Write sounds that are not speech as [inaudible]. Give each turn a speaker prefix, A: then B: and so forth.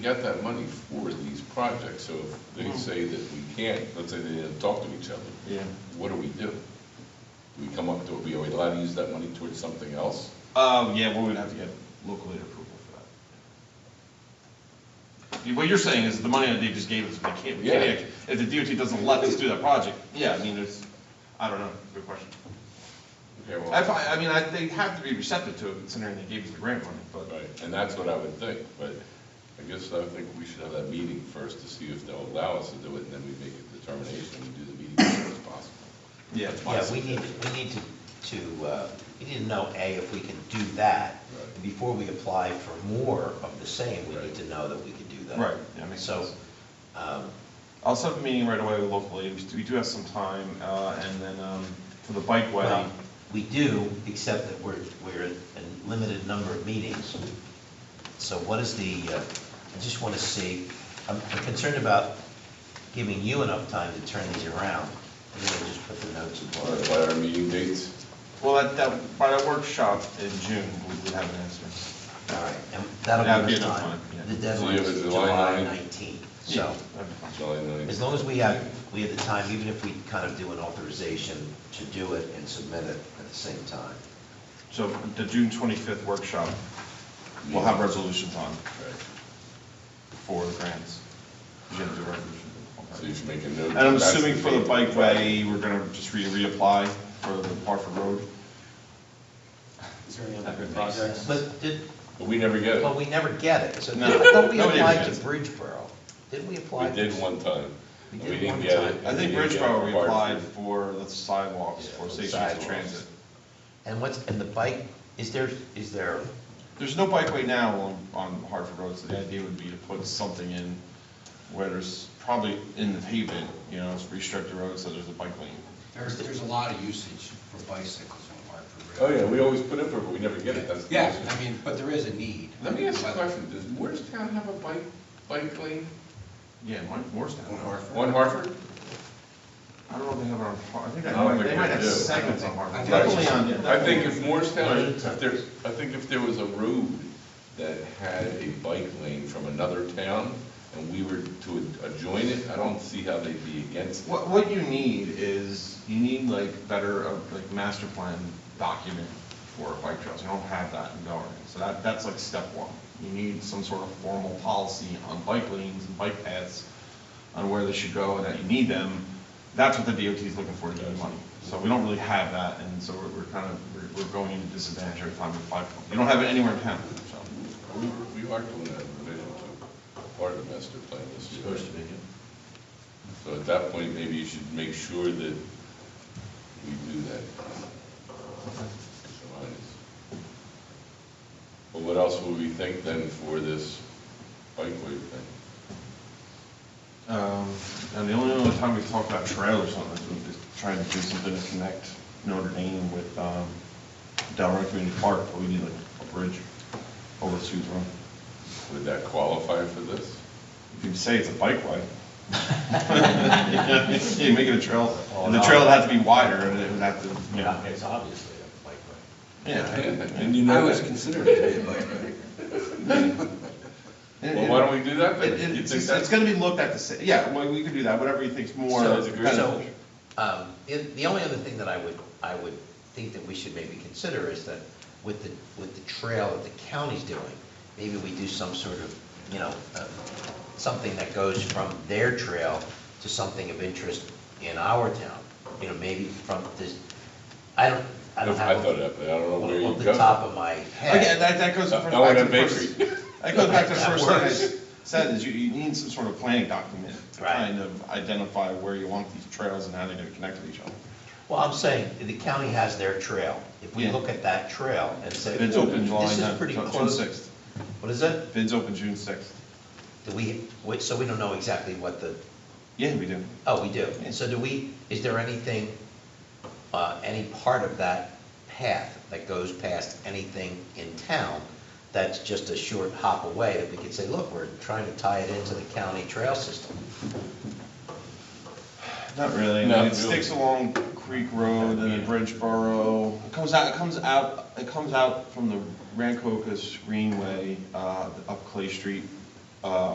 A: got that money for these projects, so if they say that we can't, let's say they didn't talk to each other.
B: Mm. Yeah.
A: What do we do? Do we come up, to are we allowed to use that money towards something else?
B: Um, yeah, we would have to get local aid approval for that. What you're saying is the money that they just gave us, we can't, we can't,
A: Yeah.
B: act- if the DOT doesn't let us do that project, yeah, I mean, there's, I don't know, good question.
A: Okay, well,
B: I, fi- I mean, I, they have to be receptive to it considering they gave us the grant money, but,
A: Right, and that's what I would think, but I guess I think we should have that meeting first to see if they'll allow us to do it, and then we make a determination, and do the meeting as soon as possible.
B: yeah.
C: Yeah, we need, we need to, to, uh, we need to know, A, if we can do that.
A: Right.
C: And Before we apply for more of the same, we
A: Right.
C: need to know that we can do that.
B: Right, yeah, makes sense.
C: So, um,
B: I'll set up a meeting right away with local aid, we do- we do have some time, uh, and then, um, for the bike way,
C: well, we do, except that we're, we're in a limited number of meetings. So what is the, uh, I just want to see, I'm I'm concerned about giving you enough time to turn these around. I'm going to just put the notes in
A: All right,
C: order.
A: By our meeting dates,
B: well, at that, by that workshop in June, we would have an answer.
C: All right, and that'll
B: That'd
C: give
B: be
C: us
B: enough
C: time.
B: time, yeah.
C: The deadline
A: So you have
C: is
A: a July
C: July
A: 9th?
C: 19th,
B: Yeah,
C: so.
B: that'd be fine.
A: July 9th.
C: As long as we have, we have the time, even if we kind of do an authorization to do it and submit it at the same time.
B: So the June 25th workshop, we'll have resolutions on
A: Right.
B: for the grants. You didn't do a resolution.
A: So you
B: Okay.
A: should make a note.
B: And I'm
A: that's
B: assuming for the
A: date.
B: bikeway, we're going to just re reapply for the Barford Road?
D: Is there any
B: That
D: other
B: would make
D: projects?
C: But did,
A: But we never get
C: well,
A: it.
C: we never get it, so
B: No,
C: I thought we
B: nobody ever
C: applied to
B: gets it.
C: Bridgeboro. Didn't we apply?
A: We did one time.
C: We
A: and
C: did
A: didn't
C: one
A: get
C: time.
A: it, and
B: I think
A: we didn't get it
B: Bridgeboro,
A: for
B: we
A: Hartford.
B: applied for the sidewalks
C: Yeah,
B: for
C: for
B: safety and
C: sidewalks.
B: transit.
C: And what's, and the bike, is there, is there,
B: There's no bikeway now on, on Hartford Road, so the idea would be to put something in where there's probably in the pavement, you know, restrict the road so there's a bike lane.
D: There's, there's a lot of usage for bicycles on Hartford
A: Oh,
D: Road.
A: yeah, we always put in for it, but we never get it, that's. the
D: Yeah,
A: issue.
D: I mean, but there is a need.
A: Let me ask you a question, does Moorestown have a bike, bike lane
B: Yeah, Mor- Morristown.
D: On Hartford.
A: on Hartford?
B: I don't know if they have it on, Har- I think
A: I don't
B: I,
A: think
B: they might
A: they
B: have
A: do.
B: segments on
D: I
B: Harvard.
D: think-
B: Definitely on-
A: I think if Morristown,
C: Right.
A: if there, I think if there was a road that had a bike lane from another town and we were to adjoin it, I don't see how they'd be against it.
B: What, what you need is, you need like better, uh, like master plan document for bike trails, you don't have that in Delran. So that, that's like step one, you need some sort of formal policy on bike lanes and bike paths, on where they should go and that you need them, that's what the DOT is looking for to give you money. So we don't really have that, and so we're, we're kind of, we're, we're going into disadvantage every time we apply for them, you don't have it anywhere in town, so.
A: We were- we are doing that revision to part of the master plan this year. So at that point, maybe you should make sure that we do that. But what else would we think then for this bikeway thing?
B: Um, And the only other time we've talked about trailers on this, we've just tried to do something to connect Notre Dame with um, Delray Community Park, but we need like a bridge over to Sue's Run.
A: Would that qualify for this?
B: If you say it's a bikeway. [laughs] You make it a trail, and the trail would have to be wider, and it would have to, you know.
C: it's obviously a bike lane.
B: Yeah.
A: And you
D: I
A: know
D: was
A: that.
D: considering it, but
A: Well, why don't we do that
B: It-
A: then?
B: it-
A: You
B: It's,
A: think
B: it's
A: that's-
B: it's gonna be looked at the, sa- yeah, well, we could do that, whatever you think's more.
A: Sounds agree-
C: So,
B: beneficial.
C: um, it- the only other thing that I would, I would think that we should maybe consider is that with the, with the trail that the county's doing, maybe we do some sort of, you know, uh, something that goes from their trail to something of interest in our town, you know, maybe from this, I don't, I don't
A: I
C: have.
A: thought of that, I don't know where you
C: Off the
A: go.
C: top of my head.
B: Again, that, that goes
A: Uh,
B: back
A: I want a
B: to the first, [laughs]
A: bakery.
B: that goes back to the
C: That
B: first thing I
C: works.
B: s- said, is you, you need some sort of planning document to
C: Right.
B: kind of identify where you want these trails and how they're gonna connect with each other.
C: Well, I'm saying, the county has their trail. If we
B: Yeah.
C: look at that trail and say,
B: Bids
C: "Ooh,
B: open July
C: this is
B: 9th,
C: pretty
B: June
C: close.
B: 6th.
C: What is it?
B: Bids open June sixth.
C: Do we, wait, so we don't know exactly what the,
B: Yeah, we do.
C: oh, we do. And so do we, is there anything, uh, any part of that path that goes past anything in town that's just a short hop away that we could say, look, we're trying to tie it into the county trail system?
B: Not really. I
A: Not
B: mean, it
A: really.
B: sticks along Creek Road and then Bridgeboro. It comes out, it comes out, it comes out from the Rancocas Greenway, uh, up Clay Street, uh,